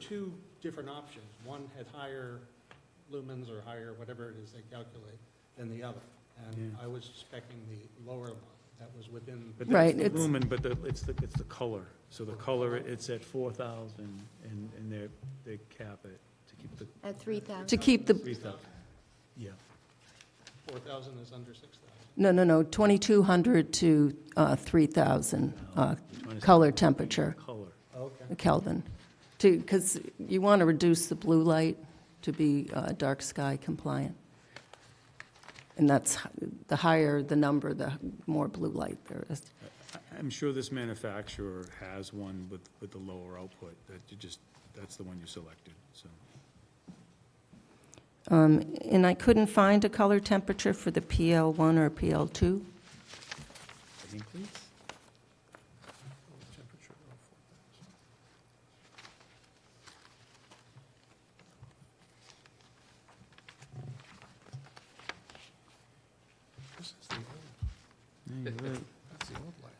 two different options. One had higher lumens or higher, whatever it is they calculate, than the other. And Yeah. I was suspecting the lower one, that was within, But Right, that's the it's- lumen, but the, it's the, it's the color. So the color, it's at four thousand, and, and they're, they cap it to keep the At three To thousand. keep three the, thousand. Yeah, 4,000 is under 6,000. no, no, no, 2,200 to uh, 3,000 uh, Minus- color temperature, color. Okay. Kelvin. To, because you want to reduce the blue light to be uh, dark sky compliant. And that's, h- the higher the number, the more blue light there is. I- I'm sure this manufacturer has one with, with the lower output, that you just, that's the one you selected, so. Um, And I couldn't find a color temperature for the PL1 or PL2. I think, please? This is the old, that's the old light.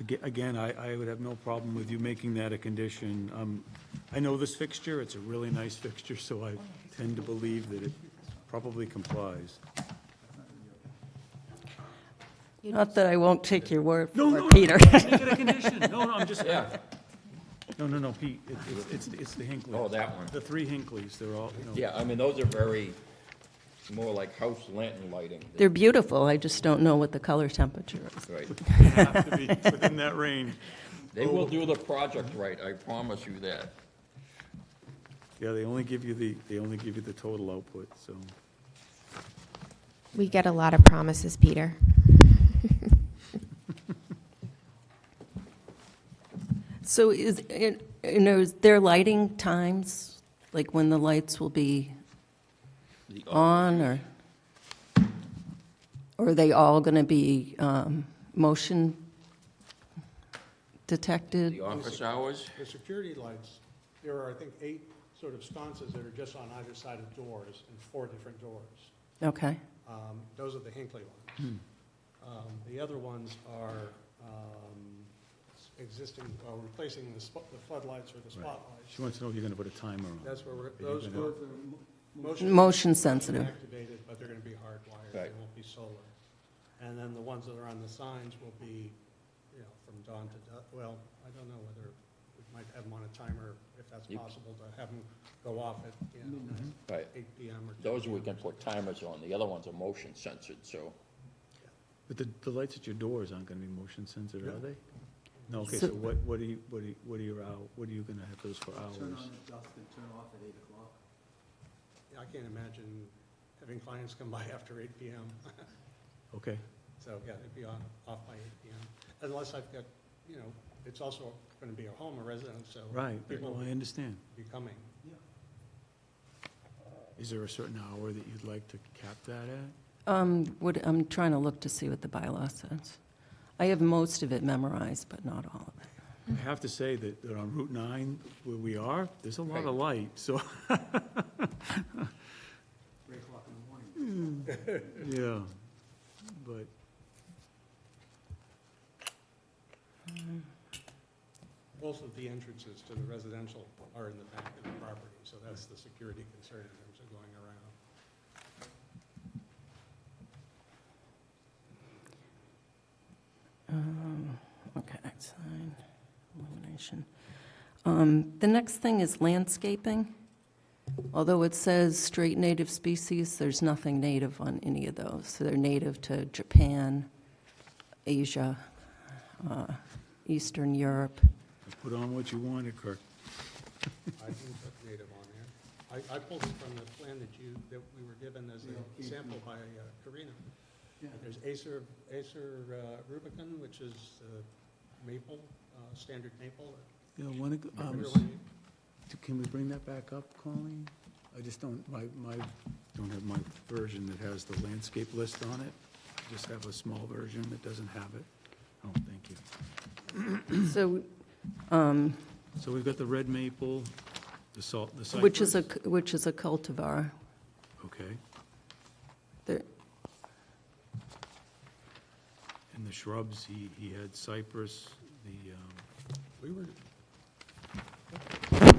Aga- Again, I, I would have no problem with you making that a condition. Um, I know this fixture, it's a really nice fixture, so I tend to believe that it probably complies. Not that I won't take your word No, no, for it, no. Peter. Make it a condition, no, no, I'm just, Yeah, no, no, no, Pete, it- it's- it's, it's the Hinckley. oh, that one. The three Hinkleys, they're all, you know. Yeah, I mean, those are very, more like house lantern lighting. They're beautiful, I just don't know what the color temperature is. Right. have to be within that range. They will do the project right, I promise you that. Yeah, they only give you the, they only give you the total output, so. We get a lot of promises, Peter. So is, and and is there lighting times, like when the lights will be The- on, or? Or are they all going to be um, motion detected? The office hours, The security lights, there are, I think, eight sort of sconces that are just on either side of doors, and four different doors. Okay, Um, Those are the Hinckley ones. Um, The other ones are um, existing, uh, replacing the spo- the floodlights or the spotlights. She wants to know if you're gonna put a timer on. That's where we're, you're those gonna- were motion. Motion sensitive. Activated, but they're going to be hardwired. They Right. won't be solar. And then the ones that are on the signs will be, you know, from dawn to dusk. Well, I don't know whether we might have them on a timer, if that's You- possible, to have them go off at, you know, right, 8 PM or. 10 those we p.m. can put timers on, the other ones are motion censored, so. But the, the lights at your doors aren't gonna be motion sensitive, are No. they? No, okay, So- so what, what are you, what are you, what are your hour, what are you gonna have those for hours? I can't imagine having clients come by after 8 PM. Okay, So, yeah, they'd be on, off by 8 PM. Unless I've got, you know, it's also going to be a home, a residence, so. right, People well, I will understand. be coming. Is there a certain hour that you'd like to cap that at? Um, What, I'm trying to look to see what the bylaw says. I have most of it memorized, but not all of it. I Mm-hmm. have to say that, that on Route nine, where we are, there's a lot of Right. light, so. Mm. Yeah, but, Both of the entrances to the residential are in the back of the property, so that's the security concern in terms of going around. Um, Okay, sign, illumination. Um, The next thing is landscaping. Although it says straight native species, there's nothing native on any of those. So they're native to Japan, Asia, uh, Eastern Europe. put on what you wanted, Kirk. I didn't put native on there. I, I pulled it from the plan that you, that we were given as a sample by uh, Karina. There's Acer, Acer uh, Rubicon, which is uh, maple, uh, standard maple. You know, one, of- um, Everyone needs. do- can we bring that back up, Colleen? I just don't, my, my, don't have my version that has the landscape list on it. I Just have a small version that doesn't have it. Oh, thank you. So, um, So we've got the red maple, the salt, the cypress. which is a, which is a cultivar. Okay, There- and the shrubs, he, he had cypress, the, um, We were,